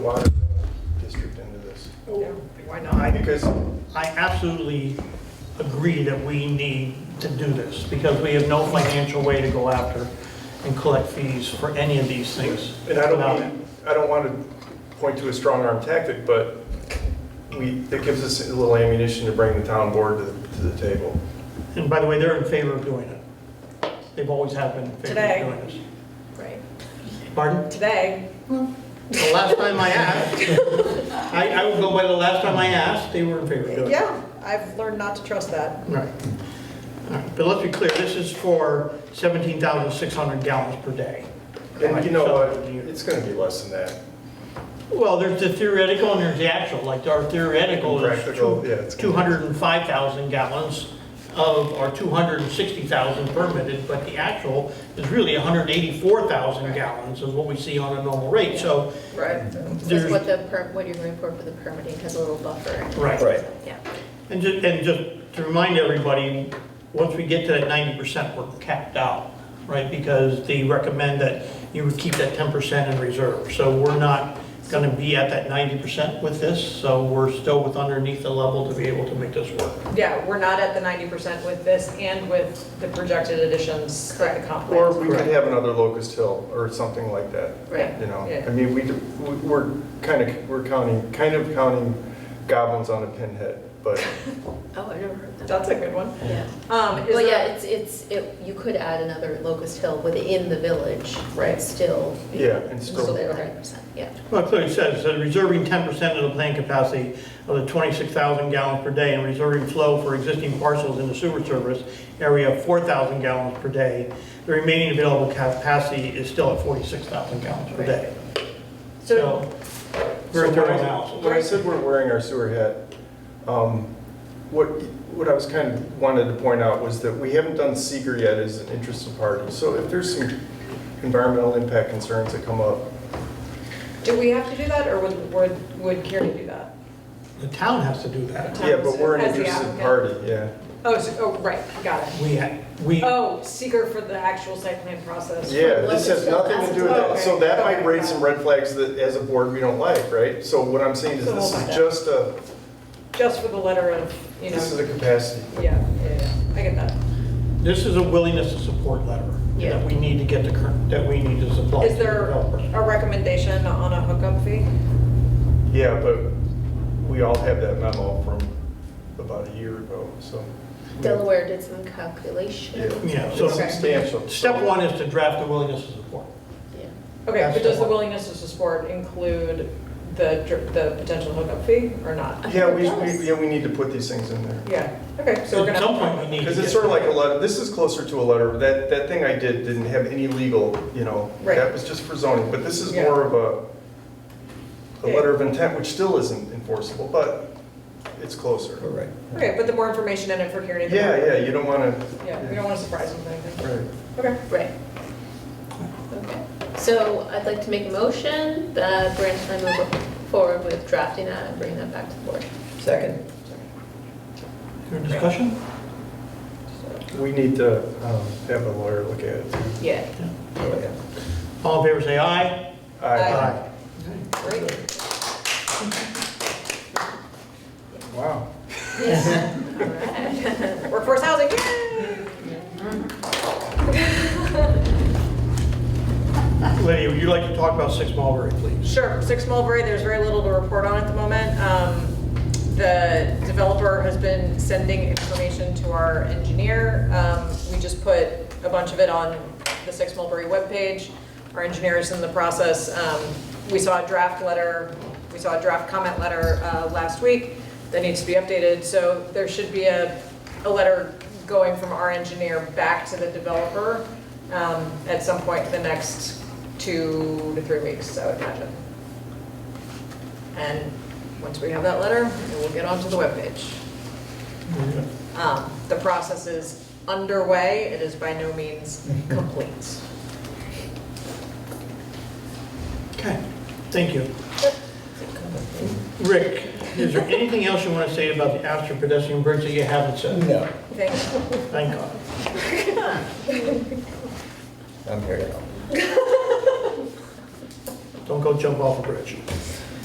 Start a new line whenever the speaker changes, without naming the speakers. water district into this.
Why not? Because I absolutely agree that we need to do this, because we have no financial way to go after and collect fees for any of these things.
And I
without
don't,
it.
mean- I don't want to point to a strong arm tactic, but we, that gives us a little ammunition to bring the town board to, to the table.
And by the way, they're in favor of doing it. They've always have been in favor
Today.
of doing this.
Right,
Pardon?
today,
The last time I asked, I, I would go by the last time I asked, they were in favor of doing it.
yeah, I've learned not to trust that.
Right. All right, But let's be clear, this is for 17,600 gallons per day.
And you know what,
So-
it's going to be less than that.
Well, there's the theoretical and there's the actual, like our theoretical is
Practical, yeah, it's-
two- 205,000 gallons of, or 260,000 permitted, but the actual is really 184,000 gallons is what we see on a normal rate, so
Right.
Just
there's,
what the, per- what you're going for for the permitting has a little buffer.
right.
Right.
Yeah.
And just, and just to remind everybody, once we get to that 90%, we're capped out, right? Because they recommend that you would keep that 10% in reserve. So we're not going to be at that 90% with this, so we're still with underneath the level to be able to make this work.
Yeah, we're not at the ninety percent with this and with the projected additions that the comp
Or
plan.
we could have another Locust Hill or something like that.
Right.
You know,
Yeah.
I mean, we, do- we- we're kind of, we're counting, kind of counting goblins on a pinhead, but
Oh, I never heard that.
That's a good one.
Yeah.
Um, is
Well, yeah,
there,
it's, it's, it- you could add another Locust Hill within the village.
Right.
Still.
yeah, and still,
Still at
Okay.
100%, yeah.
Well, it clearly says, that reserving 10% of the plant capacity of the 26,000 gallons per day and reserving flow for existing parcels in the sewer service area of 4,000 gallons per day, the remaining available capacity is still at 46,000 gallons per
Right.
day.
so,
So, we're at
So when I-
30,000.
When I said we're wearing our sewer hat, um, what, what I was kind of wanted to point out was that we haven't done seeker yet as an interested party. So if there's some environmental impact concerns that come up,
do we have to do that, or would, would, would Kieran do that?
The town has to do that.
yeah, but we're an
As the
interested
applicant.
party, yeah.
Oh, so, oh, right, got it.
We, ha- we,
Oh, seeker for the actual site plan process.
Yeah, this has nothing to do with that. So that might
Okay.
raise some red flags that as a board, we don't like, right? So what I'm saying is
So
this
hold on.
is just a,
Just for the letter of, you
this is
know,
a capacity.
yeah, yeah, yeah, I get that.
this is a willingness to support letter
Yeah.
that we need to get the current, that we need to supply to
Is
the
there
developer.
a recommendation on a hookup fee?
Yeah, but we all have that memo from about a year ago, so.
Delaware did some
Yeah,
calculation.
Yeah, so-
it's substantial.
Step one is to draft the willingness to support.
Yeah.
Okay, but does the
Absolutely.
willingness to support include the, dr- the potential hookup fee or not?
Yeah, we, we, yeah, we need to put these things in there.
Yeah, okay, so we're
At some
gonna,
point, we need to
Because it's
get-
sort of like a letter, this is closer to a letter, that, that thing I did didn't have any legal, you know,
Right.
that was just for zoning, but this is
Yeah.
more of a, a letter of intent, which still isn't enforceable, but it's closer.
All right.
okay, but the more information in it for Kieran. the
Yeah,
better.
yeah, you don't want to,
Yeah, we don't wanna surprise him with anything.
right.
Okay,
Right. Okay. So I'd like to make a motion that Brandon and I move forward with drafting that and bringing that back to the board.
Second.
Is there a discussion?
We need to um, have a lawyer look at it. too.
Yeah.
Oh, yeah.
All in favor, say aye.
Aye. great.
Wow.
All right.
Workforce housing, yay!
Lydia, would you like to talk about Six Mulberry, please?
Sure, Six Mulberry, there's very little to report on at the moment. Um, The developer has been sending information to our engineer. Um, We just put a bunch of it on the Six Mulberry webpage. Our engineer is in the process. Um, We saw a draft letter, we saw a draft comment letter uh, last week that needs to be updated. So there should be a, a letter going from our engineer back to the developer um, at some point in the next two to three weeks, I would imagine. And once we have that letter, it will get onto the webpage. Um, The process is underway, it is by no means complete.
Okay, thank you. Rick, is there anything else you want to say about the Astor pedestrian bridge that you haven't said?
No,
Thank you.
Thank God.
I'm here to help.
Don't go jump off a bridge.